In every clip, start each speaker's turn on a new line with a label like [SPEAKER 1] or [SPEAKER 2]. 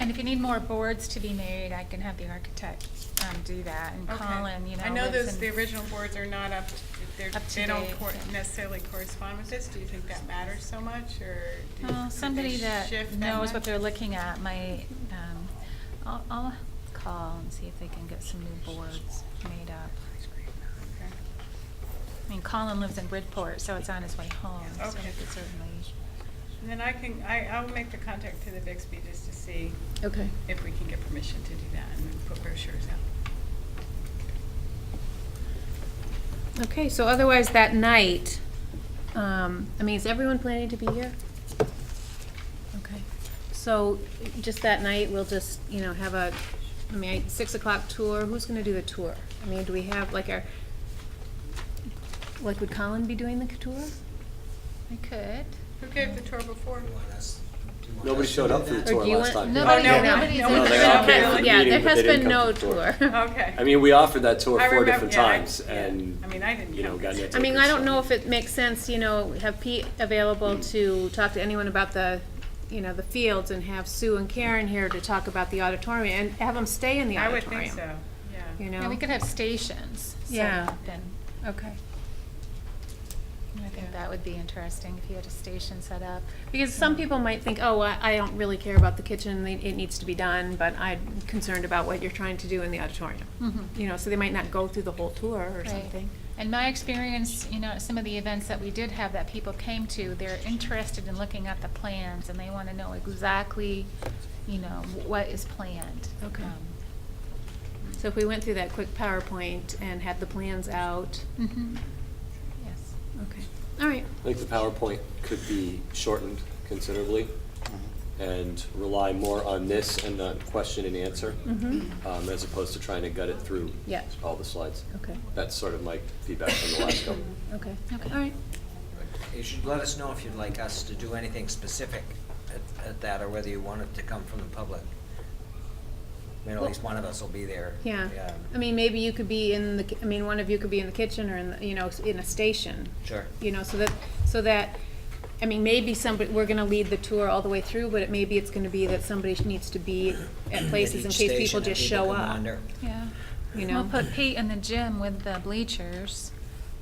[SPEAKER 1] if you need more boards to be made, I can have the architect um, do that and
[SPEAKER 2] Okay.
[SPEAKER 1] Colin, you know.
[SPEAKER 2] I know
[SPEAKER 1] lives
[SPEAKER 2] those,
[SPEAKER 1] in-
[SPEAKER 2] the original boards are not up, to- they're,
[SPEAKER 1] Up to
[SPEAKER 2] they don't
[SPEAKER 1] date,
[SPEAKER 2] cor-
[SPEAKER 1] yeah.
[SPEAKER 2] necessarily correspond with this. Do you think that matters so much, or do-
[SPEAKER 1] Well,
[SPEAKER 2] could
[SPEAKER 1] somebody
[SPEAKER 2] they
[SPEAKER 1] that
[SPEAKER 2] shift
[SPEAKER 1] knows
[SPEAKER 2] much?
[SPEAKER 1] what they're looking at might, um, I'll, I'll call and see if they can get some new boards made up. I
[SPEAKER 2] Okay.
[SPEAKER 1] mean, Colin lives in Bridport, so it's on his way home, so
[SPEAKER 2] Okay.
[SPEAKER 1] he could certainly.
[SPEAKER 2] And then I can, I, I'll make the contact to the Bixby just to see
[SPEAKER 3] Okay.
[SPEAKER 2] if we can get permission to do that and then put brochures out.
[SPEAKER 3] Okay, so otherwise that night, um, I mean, is everyone planning to be here? Okay, so just that night, we'll just, you know, have a, I mean, six o'clock tour, who's gonna do the tour? I mean, do we have like our, like would Colin be doing the tour?
[SPEAKER 1] I could.
[SPEAKER 2] Who gave the tour before?
[SPEAKER 4] Nobody showed up for the
[SPEAKER 3] Or
[SPEAKER 4] tour
[SPEAKER 3] do you
[SPEAKER 4] last
[SPEAKER 3] want-
[SPEAKER 4] time.
[SPEAKER 1] Nobody-
[SPEAKER 2] no,
[SPEAKER 4] Oh,
[SPEAKER 1] nobody's
[SPEAKER 2] no,
[SPEAKER 1] in
[SPEAKER 2] no,
[SPEAKER 1] the-
[SPEAKER 2] they all came to the
[SPEAKER 3] Yeah, there
[SPEAKER 4] meeting, but
[SPEAKER 3] has
[SPEAKER 4] they didn't
[SPEAKER 3] been no
[SPEAKER 4] come to the
[SPEAKER 3] tour.
[SPEAKER 4] tour.
[SPEAKER 2] Okay.
[SPEAKER 4] I mean, we offered that tour
[SPEAKER 2] I
[SPEAKER 4] four
[SPEAKER 2] remember-
[SPEAKER 4] different
[SPEAKER 2] yeah, I-
[SPEAKER 4] times
[SPEAKER 2] yeah.
[SPEAKER 4] and,
[SPEAKER 2] I mean, I didn't
[SPEAKER 4] you know,
[SPEAKER 2] come.
[SPEAKER 4] got no
[SPEAKER 3] I mean,
[SPEAKER 4] tickets,
[SPEAKER 3] I don't
[SPEAKER 4] so-
[SPEAKER 3] know if it makes sense, you know, have Pete available to talk to anyone about the, you know, the fields and have Sue and Karen here to talk about the auditorium and have them stay in the
[SPEAKER 2] I would
[SPEAKER 3] auditorium.
[SPEAKER 2] think so, yeah.
[SPEAKER 3] You know?
[SPEAKER 1] Yeah, we could have stations. set
[SPEAKER 3] Yeah.
[SPEAKER 1] up And
[SPEAKER 3] Okay.
[SPEAKER 1] I think
[SPEAKER 2] Yeah.
[SPEAKER 1] that would be interesting if you had a station set up.
[SPEAKER 3] Because some people might think, oh, I, I don't really care about the kitchen, it it needs to be done, but I'm concerned about what you're trying to do in the auditorium.
[SPEAKER 1] Mhm.
[SPEAKER 3] You know, so they might not go through the whole tour or
[SPEAKER 1] Right.
[SPEAKER 3] something.
[SPEAKER 1] And my experience, you know, at some of the events that we did have that people came to, they're interested in looking at the plans and they want to know exactly, you know, what is planned.
[SPEAKER 3] Okay.
[SPEAKER 1] Um,
[SPEAKER 3] So if we went through that quick PowerPoint and had the plans out,
[SPEAKER 1] mhm. Yes.
[SPEAKER 3] okay, all right.
[SPEAKER 4] I think the PowerPoint could be shortened considerably and rely more on this and the question and answer,
[SPEAKER 3] Mm-hmm.
[SPEAKER 4] um, as opposed to trying to gut it through
[SPEAKER 3] Yeah.
[SPEAKER 4] all the slides.
[SPEAKER 3] Okay,
[SPEAKER 4] That's sort of my feedback from the last couple.
[SPEAKER 3] okay,
[SPEAKER 1] Okay.
[SPEAKER 3] all right.
[SPEAKER 5] You should let us know if you'd like us to do anything specific at, at that, or whether you want it to come from the public. I mean, at least one of us will be there.
[SPEAKER 3] Yeah, I mean, maybe you could be in the, ki- I mean, one of you could be in the kitchen or in, the you know, s- in a station.
[SPEAKER 5] Sure.
[SPEAKER 3] You know, so that, so that, I mean, maybe somebody, we're gonna lead the tour all the way through, but it, maybe it's gonna be that somebody needs to be at places in
[SPEAKER 5] each
[SPEAKER 3] case
[SPEAKER 5] station
[SPEAKER 3] people
[SPEAKER 5] and
[SPEAKER 3] just
[SPEAKER 5] people
[SPEAKER 3] show
[SPEAKER 5] can
[SPEAKER 3] up,
[SPEAKER 5] wander.
[SPEAKER 1] Yeah.
[SPEAKER 3] you know?
[SPEAKER 1] We'll put Pete in the gym with the bleachers.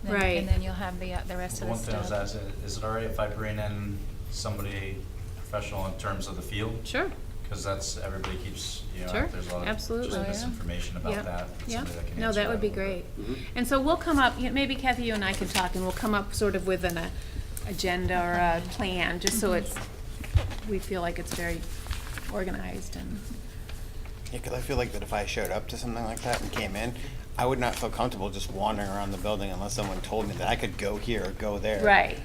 [SPEAKER 1] then-
[SPEAKER 3] Right.
[SPEAKER 1] And then you'll have the, uh, the rest of the
[SPEAKER 6] One thing I was
[SPEAKER 1] stuff.
[SPEAKER 6] asking, is it all right if I bring in somebody professional in terms of the field?
[SPEAKER 3] Sure,
[SPEAKER 6] Because that's, everybody keeps, you know,
[SPEAKER 3] Sure,
[SPEAKER 6] there's a lot of
[SPEAKER 3] absolutely.
[SPEAKER 1] Oh,
[SPEAKER 6] just
[SPEAKER 1] yeah.
[SPEAKER 6] misinformation
[SPEAKER 3] yeah,
[SPEAKER 6] about that.
[SPEAKER 3] yeah.
[SPEAKER 6] Somebody can
[SPEAKER 3] No,
[SPEAKER 6] answer
[SPEAKER 3] that would
[SPEAKER 6] a
[SPEAKER 3] be
[SPEAKER 6] little bit.
[SPEAKER 3] great.
[SPEAKER 4] Mhm.
[SPEAKER 3] And so we'll come up, yeah, maybe Kathy, you and I can talk, and we'll come up sort of with an uh, agenda or a plan, just so
[SPEAKER 1] Mhm.
[SPEAKER 3] it's, we feel like it's very organized and,
[SPEAKER 7] Yeah, because I feel like that if I showed up to something like that and came in, I would not feel comfortable just wandering around the building unless someone told me that I could go here or go there.
[SPEAKER 3] Right,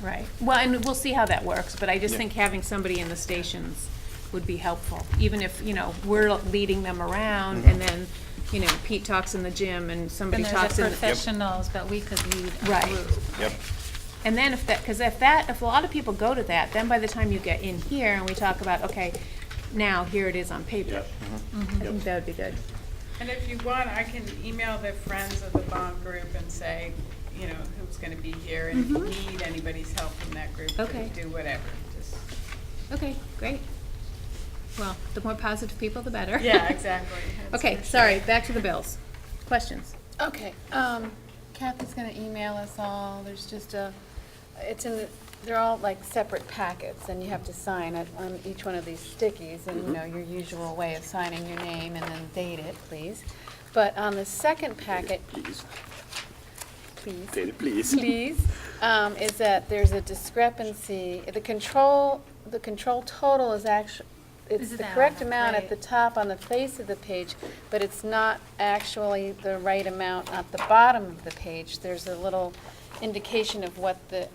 [SPEAKER 3] right. Well, and we'll see how that works, but I just
[SPEAKER 7] Yeah.
[SPEAKER 3] think having somebody in the stations would be helpful, even if, you know, we're leading them around, and
[SPEAKER 7] Mhm.
[SPEAKER 3] then, you know, Pete talks in the gym, and somebody
[SPEAKER 1] And there's
[SPEAKER 3] talks
[SPEAKER 1] the
[SPEAKER 3] in the...
[SPEAKER 1] professionals, but we could lead a
[SPEAKER 3] Right.
[SPEAKER 1] group.
[SPEAKER 7] Yep.
[SPEAKER 3] And then if that, because if that, if a lot of people go to that, then by the time you get in here, and we talk about, okay, now, here it is on paper. Mm-hmm. I
[SPEAKER 4] Yep.
[SPEAKER 3] think
[SPEAKER 4] Yep.
[SPEAKER 3] that would be good.
[SPEAKER 2] And if you want, I can email the friends of the bond group and say, you know, who's gonna be here, and if you
[SPEAKER 3] Mhm.
[SPEAKER 2] need anybody's help from that group,
[SPEAKER 3] Okay.
[SPEAKER 2] to do whatever, just.
[SPEAKER 3] Okay, great. Well, the more positive people, the better.
[SPEAKER 2] Yeah, exactly. That's
[SPEAKER 3] Okay,
[SPEAKER 2] for sure.
[SPEAKER 3] sorry, back to the bills. Questions?
[SPEAKER 8] Okay, um, Kathy's gonna email us all, there's just a, it's in, the they're all like separate packets, and you have to sign it on each one of these stickies, and
[SPEAKER 4] Mm-hmm.
[SPEAKER 8] you know, your usual way of signing your name and then date it, please. But on the second packet,
[SPEAKER 4] Please,
[SPEAKER 8] please.
[SPEAKER 4] Data, please.
[SPEAKER 8] please, um, is that there's a discrepancy, the control, the control total is actually, it's
[SPEAKER 1] Is
[SPEAKER 8] the
[SPEAKER 1] that
[SPEAKER 8] correct
[SPEAKER 1] on the
[SPEAKER 8] amount
[SPEAKER 1] right?
[SPEAKER 8] at the top on the face of the page, but it's not actually the right amount at the bottom of the page. There's a little indication of what the,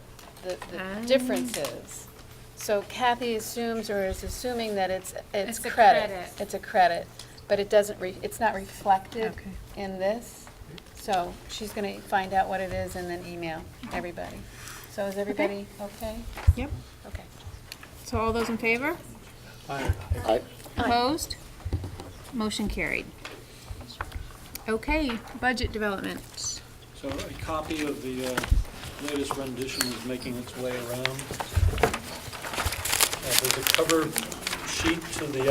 [SPEAKER 8] the,
[SPEAKER 3] Ah.
[SPEAKER 8] the difference is. So Kathy assumes or is assuming that it's,
[SPEAKER 1] It's
[SPEAKER 8] it's
[SPEAKER 1] the
[SPEAKER 8] credit.
[SPEAKER 1] credit.
[SPEAKER 8] It's a credit, but it doesn't, re- it's not reflected
[SPEAKER 3] Okay.
[SPEAKER 8] in this. So she's going to find out what it is and then email everybody. So is everybody okay?
[SPEAKER 3] Yep.
[SPEAKER 8] Okay.
[SPEAKER 3] So all those in favor?
[SPEAKER 4] I,
[SPEAKER 3] Opposed? Motion carried. Okay, budget development.
[SPEAKER 9] So a copy of the uh, latest rendition is making its way around. Uh, There's a cover sheet to the